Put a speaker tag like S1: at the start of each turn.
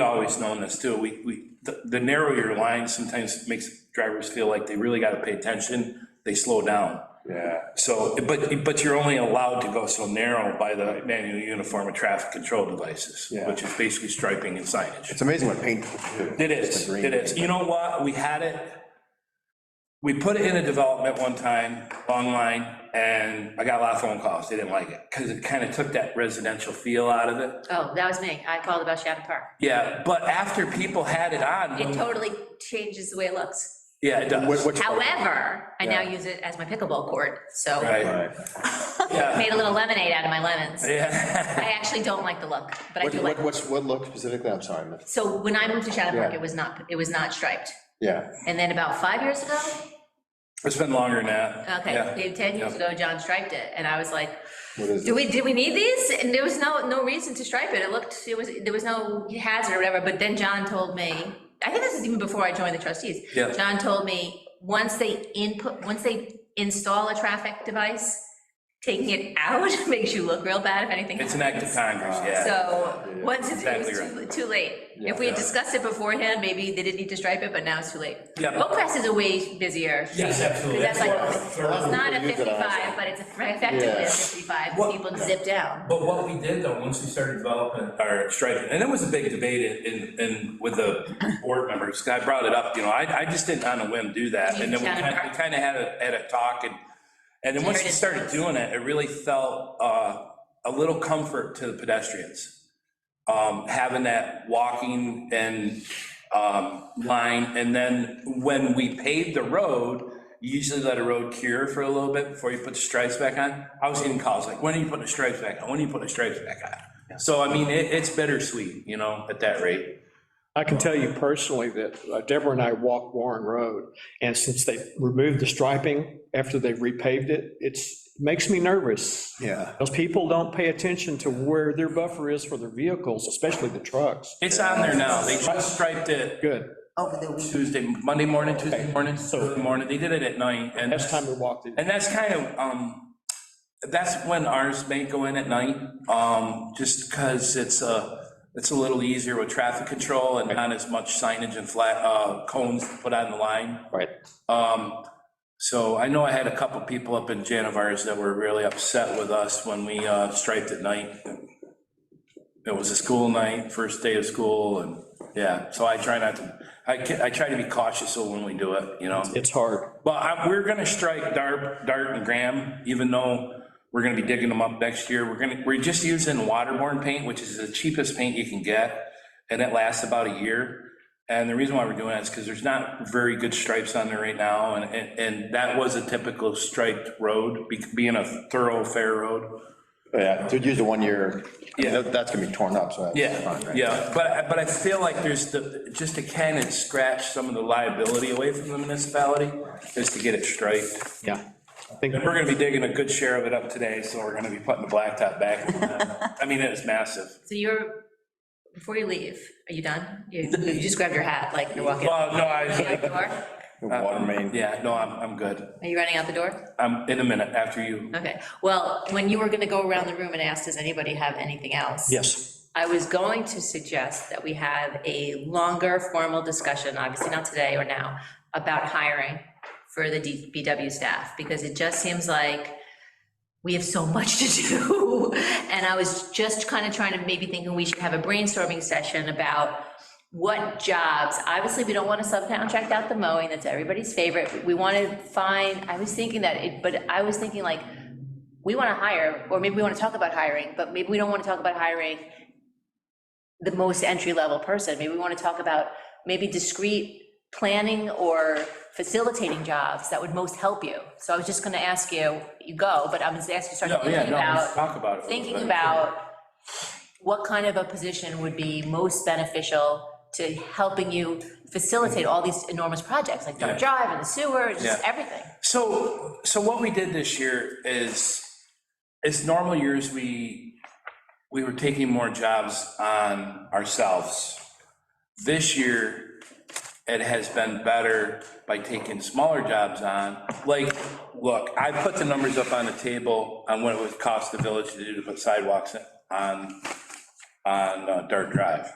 S1: always known this too, we, we, the- the narrower your line sometimes makes drivers feel like they really gotta pay attention, they slow down.
S2: Yeah,
S1: So, but, but you're only allowed to go so narrow by the manual uniform of traffic control devices,
S2: Yeah.
S1: which is basically striping and signage.
S2: it's amazing what paint can do.
S1: It is,
S2: The green.
S1: it is. You know what? We had it, we put it in a development one time, long line, and I got a lot of phone calls. They didn't like it because it kind of took that residential feel out of it.
S3: Oh, that was me. I called about Shattuck Park.
S1: Yeah, but after people had it
S3: It
S1: on,
S3: totally changes the way it looks.
S1: yeah, it
S2: What-
S1: does.
S2: what's-
S3: However, I now
S2: Yeah.
S3: use it as my pickleball court, so
S1: Right,
S2: Right.
S1: yeah,
S3: made a little lemonade out of my lemons.
S1: yeah.
S3: I actually don't like the look, but I
S2: What,
S3: do like,
S2: what, what's, what look specifically, I'm sorry, but-
S3: so when I moved to Shattuck Park,
S2: Yeah.
S3: it was not, it was not striped.
S2: yeah,
S3: And then about five years ago,
S1: It's been longer than that.
S3: okay,
S1: Yeah.
S3: maybe 10 years ago, John striped it, and I was like,
S2: what is
S3: do
S2: it?
S3: we, did we need these? And there was no, no reason to stripe it. It looked, it was, there was no hazard or whatever, but then John told me, I think this is even before I joined the trustees.
S1: Yeah.
S3: John told me, once they input, once they install a traffic device, taking it out makes you look real bad if anything.
S1: It's an act of Congress, yeah.
S3: So, once it's, it
S1: Exactly
S3: was too, too late. If we had
S1: Yeah.
S3: discussed it beforehand, maybe they didn't need to stripe it, but now it's too late.
S1: Yeah.
S3: Oak Crest is a way busier. street,
S1: Yes, absolutely.
S3: 'cause That's like,
S1: That's
S3: it's
S1: why I prefer-
S3: not a
S2: People use it
S3: fifty-five, but it's effectively a
S2: Yeah.
S3: fifty-five,
S1: What-
S3: people zip down.
S1: But what we did though, once we started developing our striping, and it was a big debate in, in, with the board members, 'cause I brought it up, you know, I, I just didn't on a whim do that. And then we
S3: Kind of-
S1: kind of, we kind of had a, had a talk and, and then once we started doing it, it really felt, uh, a little comfort to the pedestrians. Um, having that walking and, um, line, and then when we paved the road, you usually let a road cure for a little bit before you put the stripes back on. I was getting calls like, when are you putting the stripes back on? When are you putting the stripes back on? So I mean, it, it's bittersweet, you know, at that rate.
S4: I can tell you personally that uh, Deborah and I walked Warren Road, and since they removed the striping after they repaved it, it's, makes me nervous.
S2: Yeah,
S4: Those people don't pay attention to where their buffer is for their vehicles, especially the trucks.
S1: It's on there now. They just striped it
S4: Good.
S5: over the weekend.
S1: Tuesday, Monday morning, Tuesday morning, Thursday morning. They did it at night and.
S4: Last time we walked it,
S1: And that's kind of, um, that's when ours may go in at night, um, just because it's a, it's a little easier with traffic control and not as much signage and flat, uh, cones put on the line.
S4: right,
S1: Um, so I know I had a couple people up in Janivars that were really upset with us when we, uh, striped at night. It was a school night, first day of school, and, yeah, so I try not to, I, ca- I try to be cautious of when we do it, you know?
S4: it's hard.
S1: But I, we're gonna strike Dart, Dart and Graham, even though we're gonna be digging them up next year. We're gonna, we're just using waterborne paint, which is the cheapest paint you can get, and it lasts about a year. And the reason why we're doing that is because there's not very good stripes on there right now, and, and, and that was a typical striped road, be- being a thoroughfare road.
S2: yeah, to use the one year, I mean,
S1: Yeah.
S2: that- that's gonna be torn up, so. that's fine,
S1: Yeah,
S2: right?
S1: yeah, but, but I feel like there's the, just to kind of scratch some of the liability away from the municipality, is to get it striped.
S4: Yeah. I think
S1: And we're gonna be digging a good share of it up today, so we're gonna be putting the blacktop back. I mean, it is massive.
S3: So you're, before you leave, are you done? You you just grabbed your hat, like you're walking.
S1: Well, no,
S3: Running out
S1: I,
S3: the door?
S2: The water main.
S1: yeah, no, I'm, I'm good.
S3: Are you running out the door?
S1: I'm in a minute after you.
S3: Okay, well, when you were gonna go around the room and ask, does anybody have anything else?
S4: Yes,
S3: I was going to suggest that we have a longer formal discussion, obviously not today or now, about hiring for the DPW staff, because it just seems like we have so much to do. And I was just kind of trying to, maybe thinking we should have a brainstorming session about what jobs, obviously, we don't want to subcontract out the mowing, that's everybody's favorite. We want to find, I was thinking that, it but I was thinking like, we want to hire, or maybe we want to talk about hiring, but maybe we don't want to talk about hiring the most entry-level person. Maybe we want to talk about maybe discrete planning or facilitating jobs that would most help you. So I was just going to ask you, you go, but I'm just asking, start
S1: No, yeah,
S3: thinking
S1: no, let's
S3: about,
S1: talk about it. a little
S3: thinking
S1: bit.
S3: about what kind of a position would be most beneficial to helping you facilitate all these enormous projects, like Dart Drive and the sewer, just
S1: Yeah.
S3: everything.
S1: So, so what we did this year is, is normal years, we, we were taking more jobs on ourselves. This year, it has been better by taking smaller jobs on. Like, look, I put the numbers up on the table on what it would cost the village to do to put sidewalks on, on uh, Dart Drive.